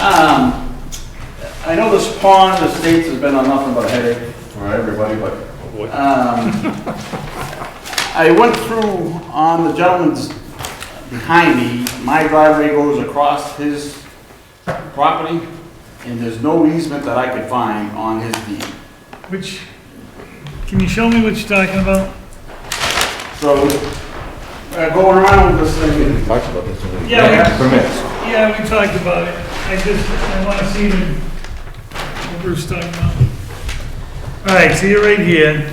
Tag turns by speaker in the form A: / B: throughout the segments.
A: Um, I know this pond, the states has been on nothing but a headache for everybody, but, um, I went through on the gentleman's behind me, my driveway goes across his property, and there's no easement that I could find on his deed.
B: Which, can you show me what you're talking about?
A: So, uh, going around with this thing,
C: Talked about this already.
B: Yeah,
C: For minutes.
B: we- yeah, we talked about it. I just, I want to see the, what Bruce's talking about. All right, so you're right here.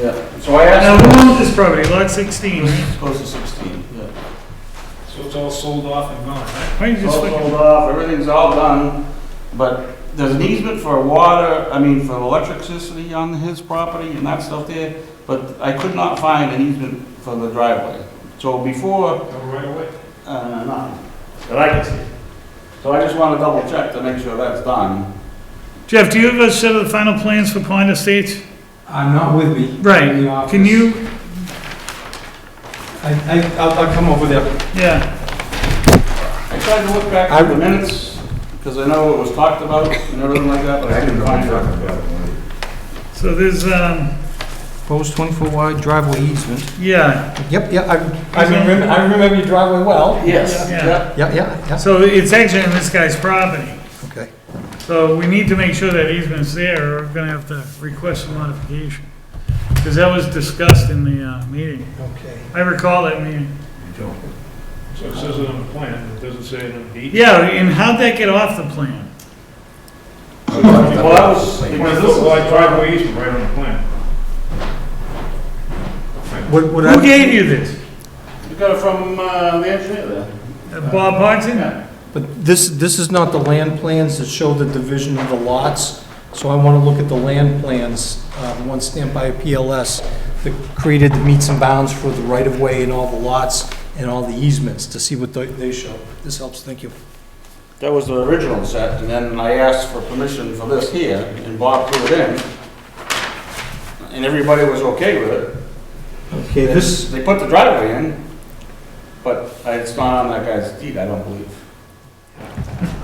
A: yeah, so I
B: Now,
A: asked.
B: who owns this property? Lot 16, right?
A: Close to sixteen, yeah.
D: So it's all sold off and gone, right?
B: Why don't you
A: It's
B: just
A: all
B: look
A: sold
B: at-
A: off, everything's all done, but there's an easement for water, I mean, for electricity on his property and that stuff there, but I could not find an easement for the driveway. So before
D: Go right away.
A: Uh, none, that I can see. So I just want to double check to make sure that's done.
B: Jeff, do you have a set of the final plans for Pond Estates?
E: I'm not with me. in the
B: Right,
E: office.
B: can you,
E: I, I, I'll, I'll come over there.
B: yeah,
A: I tried to look back at the minutes, because I know it was talked about and everything like that, but I couldn't find it.
B: so there's, um,
E: Proposed twenty-four wide driveway easement.
B: yeah,
E: Yep, yeah, I, I remember, I remember your driveway well.
A: Yes,
B: Yeah.
A: yeah.
E: Yeah, yeah, yeah,
B: so it's actually on this guy's property.
E: okay.
B: So we need to make sure that easement's there, or we're gonna have to request a modification. Because that was discussed in the uh, meeting.
E: Okay.
B: I recall that meeting.
D: So it says it on the plan, it doesn't say it on the deed.
B: Yeah, and how'd that get off the plan?
A: Well, I was,
D: Well,
A: because
D: it
A: this
D: looks
A: is
D: like driveway easement right on the plan.
E: What, what
B: Who
E: I,
B: gave you this?
A: you got it from uh, the engineer there.
B: Uh, Bob Boxton?
A: Yeah.
E: but this, this is not the land plans that show the division of the lots, so I want to look at the land plans, uh, the ones stamped by PLS that created the meets and bounds for the right-of-way and all the lots and all the easements to see what they, they show. This helps, thank you.
A: That was the original set, and then I asked for permission for this here, and Bob threw it in. And everybody was okay with it.
E: Okay,
A: This, they put the driveway in, but it's not on that guy's deed, I don't believe.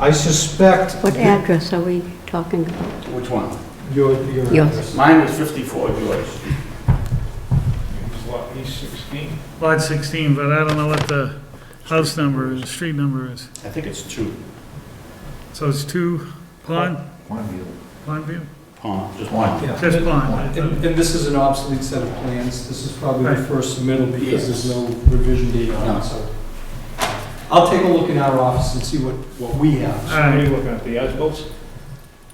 E: I suspect.
F: What address are we talking about?
A: Which one?
E: Your, your
F: Yours.
E: address.
A: Mine was 54, yours.
D: It's lot E sixteen.
B: Lot 16, but I don't know what the house number, the street number is.
A: I think it's two.
B: So it's two Pond, Pond View?
A: Pond, just one.
E: Yeah.
B: Just Pond.
E: And, and this is an obsolete set of plans, this is probably the
B: Right.
E: first submittal because
A: Yes.
E: there's no revision date on
A: No.
E: it, so. I'll take a look in our office and see what, what we have.
B: All
D: What are you
B: right,
D: looking at, the as-built?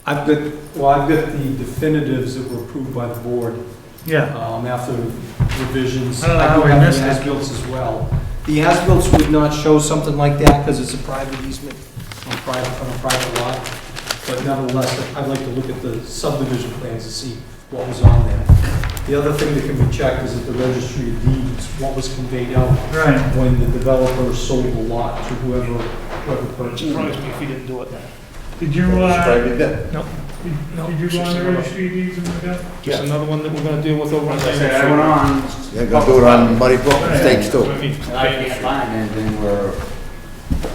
E: I've got, well, I've got the definitives that were approved by the board,
B: yeah.
E: um, after revisions.
B: I don't know
E: I
B: how
E: do
B: we
E: have
B: missed
E: the
B: it.
E: as-bills as well. The as-bills would not show something like that because it's a private easement on private, on a private lot. But nevertheless, I'd like to look at the subdivision plans to see what was on there. The other thing that can be checked is at the registry of deeds, what was conveyed out
B: Right,
E: when the developer sold the lot to whoever, whoever purchased it.
D: Surprised me if you didn't do it.
B: did you, uh,
C: Right, yeah.
B: did you go on the registry of deeds and look up?
D: Just another one that we're gonna deal with over on
A: As
D: the.
A: I said, I went on,
C: They're gonna do it on Muddy Brook Estates
D: What I
C: too.
D: mean,
A: and I can't find anything where,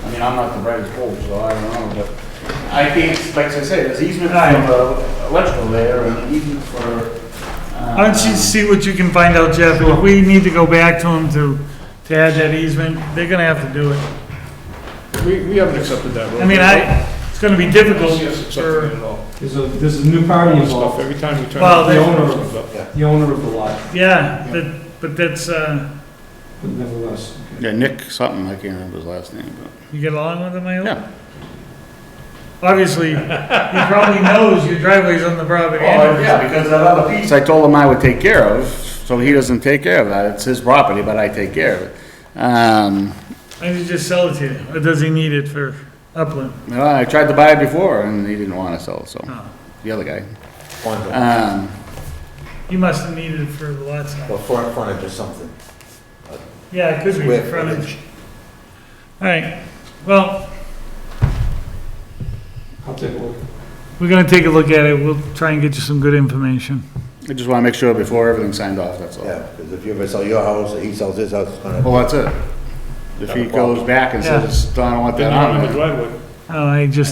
A: I mean, I'm not the brightest bulb, so I don't know, but I can't, like I said, there's easement for the electrical there, and easement for, uh...
B: Why don't you see what you can find out, Jeff? If we need to go back to them to, to add that easement, they're gonna have to do it.
D: We, we haven't accepted that road.
B: I mean, I, it's gonna be difficult
D: Yes, accepted it
B: for,
D: at all.
E: There's a, there's a new party
D: Stuff, every time we turn.
B: Well,
D: the
B: they-
D: owner comes up.
E: the owner of the lot,
B: yeah, that, but that's, uh,
E: but nevertheless.
A: Yeah, Nick something, I can't remember his last name,
B: you get along with them, I hope?
A: Yeah.
B: Obviously, he probably knows your driveway's on the property.
A: Well,
B: anyway.
A: Oh, yeah, because that other piece, I told him I would take care of, so he doesn't take care of that, it's his property, but I take care of it. Um,
B: I need to just sell it to you, or does he need it for upland?
A: Well, I tried to buy it before, and he didn't want to sell, so,
B: Oh.
A: the other guy.
C: Frontage,
A: Um,
B: He must have needed it for the lot size.
C: well, front- frontage or something.
B: Yeah, it could be
C: Square
B: frontage. All right, well,
E: I'll take a look.
B: we're gonna take a look at it, we'll try and get you some good information.
A: I just want to make sure before everything's signed off, that's all.
C: Yeah, because if you ever sell your house, or he sells his house, it's gonna,
A: Well, that's it. If he goes back and says, I don't want that
D: Didn't
A: on
D: have
A: there.
D: the driveway.
B: Oh, I just